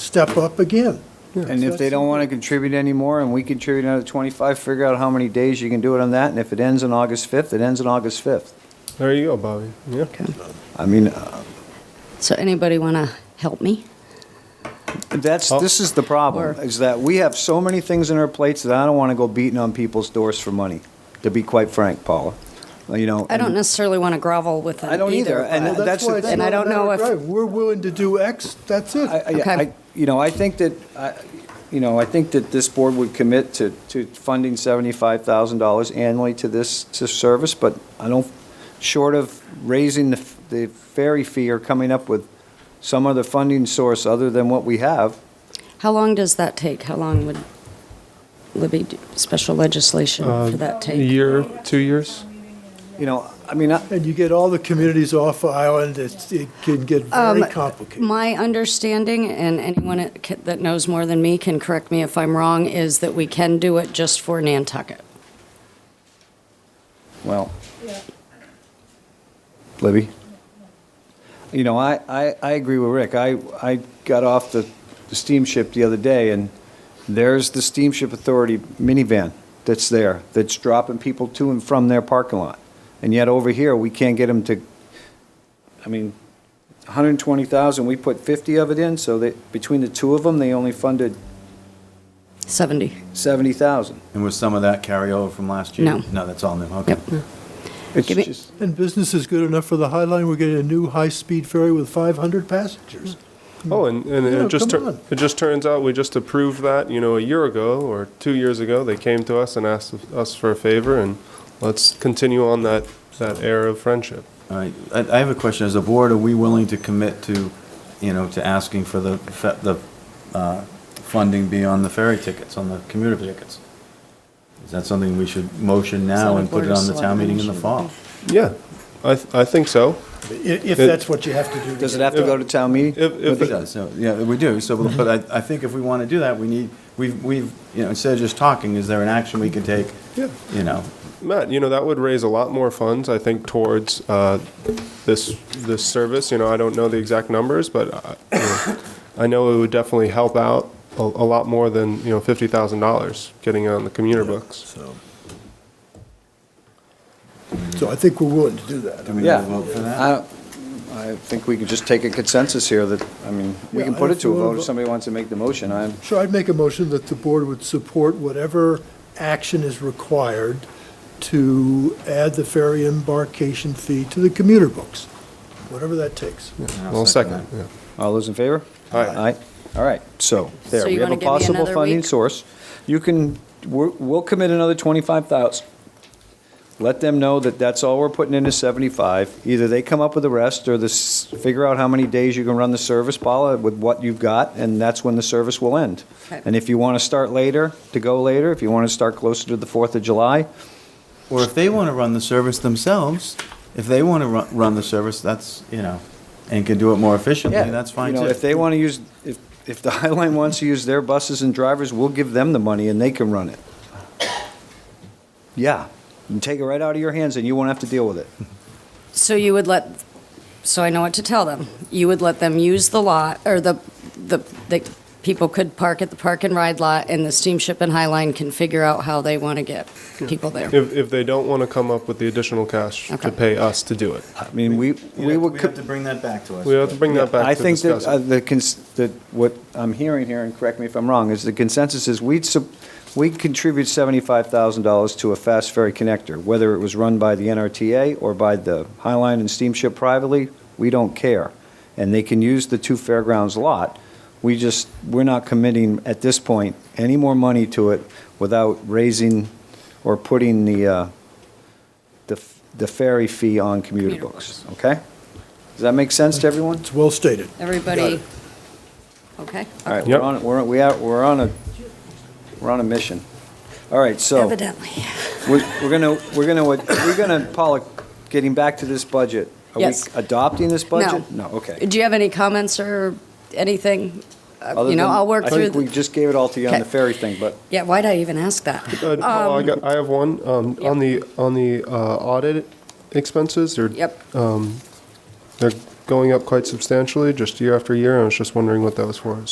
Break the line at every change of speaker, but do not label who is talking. step up again.
And if they don't want to contribute anymore and we contribute another 25, figure out how many days you can do it on that. And if it ends on August 5th, it ends on August 5th.
There you go, Bobby. Yeah.
Okay.
I mean, uh,
So anybody want to help me?
that's,
Oh.
this is the problem,
Or-
is that we have so many things on our plates that I don't want to go beating on people's doors for money, to be quite frank, Paula. You know.
I
Mm-hmm.
don't
and-
necessarily want to grovel with them
I don't either, and
but-
Well, that's the
why it's
thing.
And I
not a
don't know
matter of
if-
right. We're willing to do X, that's it.
I- I-
Okay.
I- You know, I think that, I- you know, I think that this board would commit to, to funding $75,000 annually to this, to service, but I don't, short of raising the, f- the ferry fee or coming up with some other funding source other than what we have,
How long does that take? How long would Libby, do- special legislation
Uh,
for that
A
take?
year, two years?
you know, I mean, I-
And you get all the communities off island, it's, it can get very
Um,
complicated.
My understanding, and anyone that ca- that knows more than me can correct me if I'm wrong, is that we can do it just for Nantucket.
well. Libby? You know, I, I, I agree with Rick. I, I got off the the steamship the other day, and there's the steamship authority minivan that's there, that's dropping people to and from their parking lot. And yet over here, we can't get them to, I mean, 120,000, we put 50 of it in, so that, between the two of them, they only funded
70.
70,000.
And was some of that carryover from last year?
No.
No, that's all new, okay.
Yep.
It's
Give me-
just,
And business is good enough for the High Line, we're getting a new high-speed ferry with 500 passengers.
Oh, and, and
Yeah,
it just,
come
tur-
on.
it just turns out we just approved that, you know, a year ago or two years ago. They came to us and asked us for a favor and let's continue on that, that air of friendship.
All right, I, I have a question, as a board, are we willing to commit to, you know, to asking for the, fe- the, uh, funding beyond the ferry tickets, on the commuter tickets? Is that something we should motion now and put it on the town meeting in the fall?
Yeah, I, th- I think so.
I- If that's what you have to do. to
does it
get-
have to go to town meeting?
If,
It
if,
does, so, yeah, we do, so, but I, I think if we want to do that, we need, we've, we've, you know, instead of just talking, is there an action we can take?
Yeah.
You know,
Matt, you know, that would raise a lot more funds, I think, towards uh, this, this service. You know, I don't know the exact numbers, but I- you know, I know it would definitely help out a, a lot more than, you know, $50,000 getting on the commuter books.
So So I think we're willing to do that.
do we need
Yeah.
to vote for that?
Uh,
I I think we can just take a consensus here that, I mean, we
Yeah,
can put
if
it to a
you wanna
vote if
vo-
somebody wants to make the motion. I'm,
Sure, I'd make a motion that the board would support whatever action is required to add the ferry embarkation fee to the commuter books, whatever that takes.
Well, second, yeah.
all those in favor?
Aye.
Aye, all right, so, there,
So
we
you
have a
wanna give me
possible
another
funding
week?
source. You can, we're- we'll commit another 25,000. Let them know that that's all we're putting into 75. Either they come up with the rest, or this, figure out how many days you can run the service, Paula, with what you've got, and that's when the service will end.
Okay.
And if you want to start later, to go later, if you want to start closer to the 4th of July,
Or if they want to run the service themselves, if they want to run, run the service, that's, you know, and can do it more efficiently,
Yeah,
that's fine
You know,
too.
if they want to use, if, if the High Line wants to use their buses and drivers, we'll give them the money and they can run it. Yeah, and take it right out of your hands and you won't have to deal with it.
So you would let, so I know what to tell them. You would let them use the lot, or the, the, the people could park at the park and ride lot, and the steamship and Highline can figure out how they want to get people there.
If, if they don't want to come up with the additional cash
Okay.
to pay us to do it.
I mean, we, we would. co-
have to bring that back to us.
We have to bring that
I
back to
think that,
discuss
uh,
it.
the, cons- that what I'm hearing here, and correct me if I'm wrong, is the consensus is we'd, sup- we'd contribute $75,000 to a fast ferry connector, whether it was run by the NRTA or by the High Line and Steamship privately, we don't care. And they can use the two fairgrounds lot. We just, we're not committing at this point any more money to it without raising or putting the, uh, the f- the ferry fee on commuter
Commuter
books, okay? Does that make sense to everyone?
It's well stated. Got
Everybody,
it.
okay?
All right,
Yep.
we're on, we're, we are, we're on a, we're on a mission. All right, so,
Evidently.
we're, we're gonna, we're gonna, we're gonna, Paula, getting back to this budget. Are we
Yes.
adopting this
No.
budget? okay.
Do you have any comments or anything? Uh,
Other
You know,
than-
I'll work
I
through,
think we
the-
just gave it all to you on the
Okay.
ferry thing, but,
yeah, why'd I even ask that?
Uh, Paul, I got- I have one, um,
Yep.
on the, on the uh, audit expenses, they're.
Yep.
um, They're going up quite substantially, just year after year, and I was just wondering what that was for.